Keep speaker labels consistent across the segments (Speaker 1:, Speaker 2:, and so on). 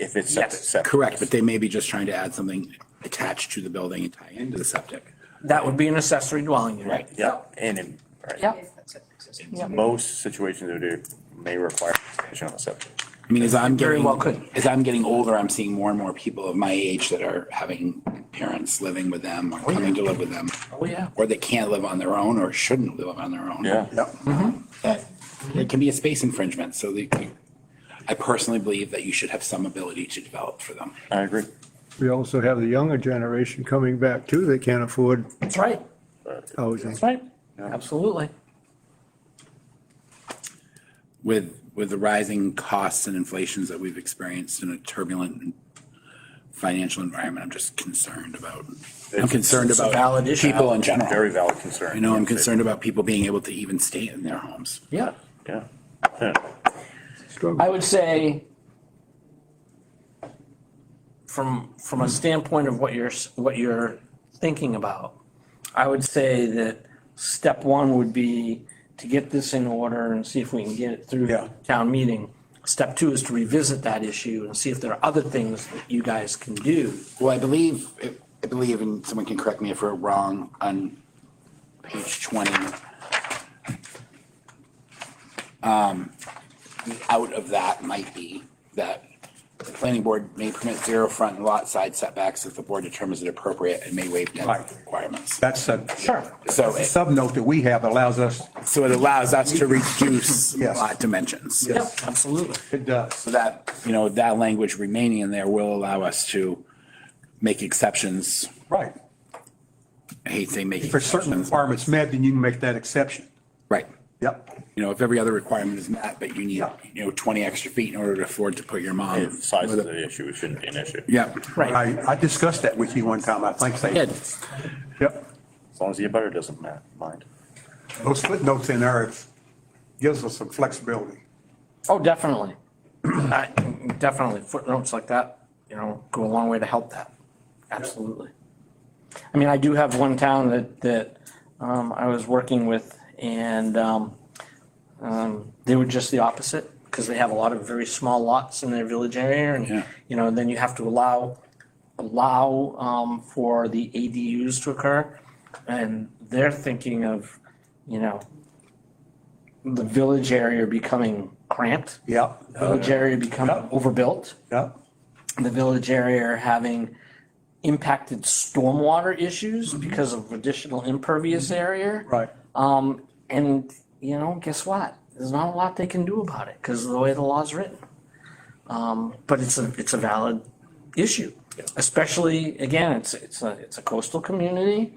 Speaker 1: if it's septic,
Speaker 2: Yes.
Speaker 1: septic.
Speaker 3: Correct, but they may be just trying to add something attached to the building and tie into the septic.
Speaker 2: That would be an accessory dwelling unit.
Speaker 1: Right, yeah, and in, right.
Speaker 2: Yep.
Speaker 1: In Most situations, it would- may require expansion on the septic.
Speaker 3: I mean, as I'm
Speaker 2: Very
Speaker 3: getting,
Speaker 2: well could.
Speaker 3: as I'm getting older, I'm seeing more and more people of my age that are having parents living with them or coming to live with them.
Speaker 2: Oh, yeah.
Speaker 3: Or they can't live on their own or shouldn't live on their own.
Speaker 1: Yeah.
Speaker 3: That, it can be a space infringement, so they, I personally believe that you should have some ability to develop for them.
Speaker 1: I agree.
Speaker 4: We also have the younger generation coming back too. They can't afford
Speaker 2: That's right,
Speaker 4: housing.
Speaker 2: that's right. Absolutely.
Speaker 3: with with the rising costs and inflations that we've experienced in a turbulent financial environment, I'm just concerned about, I'm concerned
Speaker 2: It's a
Speaker 3: about
Speaker 2: valid issue.
Speaker 3: people in
Speaker 1: Very
Speaker 3: general.
Speaker 1: valid concern.
Speaker 3: You know, I'm concerned about people being able to even stay in their homes.
Speaker 2: Yeah.
Speaker 1: Yeah.
Speaker 4: Struggle.
Speaker 2: I would say from, from a standpoint of what you're, s- what you're thinking about, I would say that step one would be to get this in order and see if we can get it through
Speaker 1: Yeah.
Speaker 2: town meeting. Step two is to revisit that issue and see if there are other things that you guys can do.
Speaker 3: Well, I believe, I believe, and someone can correct me if we're wrong, on page 20. um, Out of that might be that the planning board may permit zero front and lot side setbacks if the board determines it appropriate and may waive density
Speaker 5: Right.
Speaker 3: requirements.
Speaker 5: That's a.
Speaker 2: Sure.
Speaker 3: So
Speaker 5: A
Speaker 3: it-
Speaker 5: subnote that we have allows us,
Speaker 3: so it allows us to reduce
Speaker 5: Yes.
Speaker 3: lot dimensions.
Speaker 2: Yep, absolutely.
Speaker 5: it does.
Speaker 3: So that, you know, that language remaining in there will allow us to make exceptions.
Speaker 5: Right.
Speaker 3: I hate saying make
Speaker 5: For certain
Speaker 3: exceptions.
Speaker 5: requirements met, then you can make that exception.
Speaker 3: Right.
Speaker 5: Yep.
Speaker 3: you know, if every other requirement is met, but you need,
Speaker 5: Yeah.
Speaker 3: you know, twenty extra feet in order to afford to put your mom.
Speaker 1: If size is the issue, it shouldn't be an issue.
Speaker 3: Yeah,
Speaker 2: Right.
Speaker 5: I, I discussed that with you one time, I think. they-
Speaker 3: Good.
Speaker 5: Yep.
Speaker 1: As long as the abutter doesn't ma- mind.
Speaker 5: Those footnotes in there it's- gives us some flexibility.
Speaker 2: Oh, definitely. I- Definitely. Footnotes like that, you know, go a long way to help that. Absolutely. I mean, I do have one town that, that um, I was working with and um, um, they were just the opposite because they have a lot of very small lots in their village area
Speaker 3: Yeah.
Speaker 2: and, you know, then you have to allow, allow um, for the ADUs to occur. And they're thinking of, you know, the village area becoming cramped
Speaker 5: Yep.
Speaker 2: village area become
Speaker 5: Uh, Yeah.
Speaker 2: overbuilt,
Speaker 5: Yep.
Speaker 2: the village area having impacted stormwater issues because of additional impervious area.
Speaker 5: Mm-hmm. Right.
Speaker 2: Um, and, you know, guess what? There's not a lot they can do about it because of the way the law's written. Um, but it's a, it's a valid issue, especially, again, it's, it's a, it's a coastal community.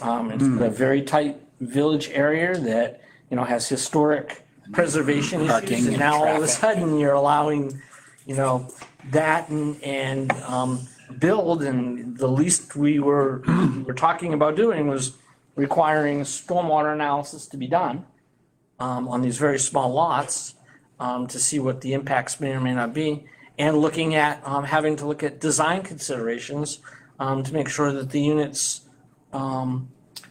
Speaker 2: Um, it's
Speaker 3: Mm.
Speaker 2: a very tight village area that, you know, has historic preservation
Speaker 3: Parking
Speaker 2: issues. And
Speaker 3: and
Speaker 2: now all of a
Speaker 3: traffic.
Speaker 2: sudden you're allowing, you know, that and, and, um, build and the least we were, were talking about doing was requiring stormwater analysis to be done, um, on these very small lots, um, to see what the impacts may or may not be. And looking at, um, having to look at design considerations, um, to make sure that the units, um,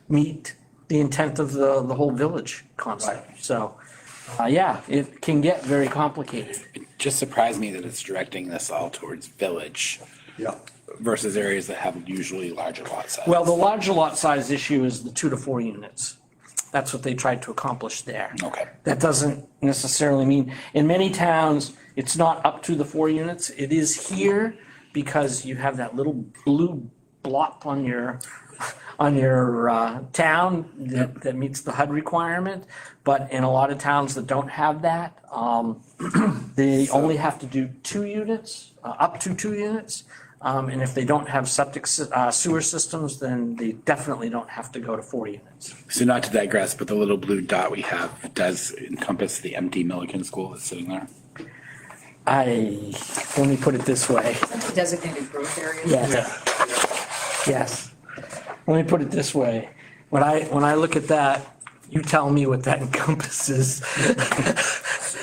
Speaker 2: meet the intent of the, the whole village concept. So, uh, yeah, it can get very complicated.
Speaker 3: it just surprised me that it's directing this all towards village
Speaker 5: Yep.
Speaker 3: versus areas that have usually larger lot size.
Speaker 2: Well, the larger lot size issue is the two to four units. That's what they tried to accomplish there.
Speaker 3: Okay.
Speaker 2: That doesn't necessarily mean, in many towns, it's not up to the four units. It is here because you have that little blue blop on your, on your uh, town that, that meets the HUD requirement. But in a lot of towns that don't have that, um, they only have to do two units, uh, up to two units. Um, And if they don't have septic sy- uh, sewer systems, then they definitely don't have to go to four units.
Speaker 3: So not to digress, but the little blue dot we have does encompass the empty Milliken school that's sitting there.
Speaker 2: I, let me put it this way.
Speaker 6: Designated growth areas.
Speaker 2: Yes. Yes. Let me put it this way. When I, when I look at that, you tell me what that encompasses.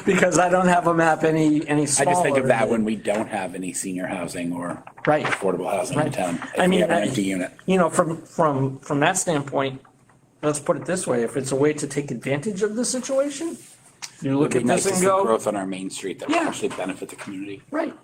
Speaker 2: Because I don't have a map any, any
Speaker 3: I
Speaker 2: smaller.
Speaker 3: just think of that when we don't have any senior housing or
Speaker 2: Right.
Speaker 3: affordable housing in
Speaker 2: Right.
Speaker 3: town. if
Speaker 2: I
Speaker 3: we
Speaker 2: mean,
Speaker 3: have an
Speaker 2: I-
Speaker 3: Empty unit.
Speaker 2: You know, from, from, from that standpoint, let's put it this way, if it's a way to take advantage of the situation, you look
Speaker 3: It'd
Speaker 2: at
Speaker 3: be
Speaker 2: this
Speaker 3: nice to
Speaker 2: and
Speaker 3: see
Speaker 2: go,
Speaker 3: growth on our main street that would
Speaker 2: Yeah.
Speaker 3: actually benefit the community.
Speaker 2: right,